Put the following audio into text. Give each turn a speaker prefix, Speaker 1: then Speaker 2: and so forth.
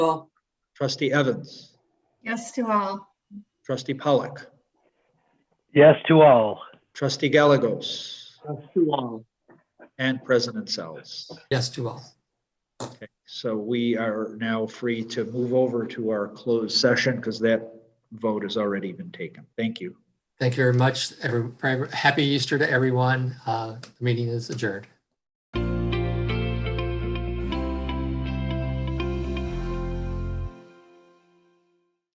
Speaker 1: all,
Speaker 2: Trustee Evans,
Speaker 3: Yes to all.
Speaker 2: Trustee Pollock,
Speaker 4: Yes to all.
Speaker 2: Trustee Galagos,
Speaker 5: to all.
Speaker 2: and President Sells.
Speaker 1: yes to all.
Speaker 2: So we are now free to move over to our closed session because that vote has already been taken. Thank you.
Speaker 1: Thank you very much. Every, happy Easter to everyone. Uh, the meeting is adjourned.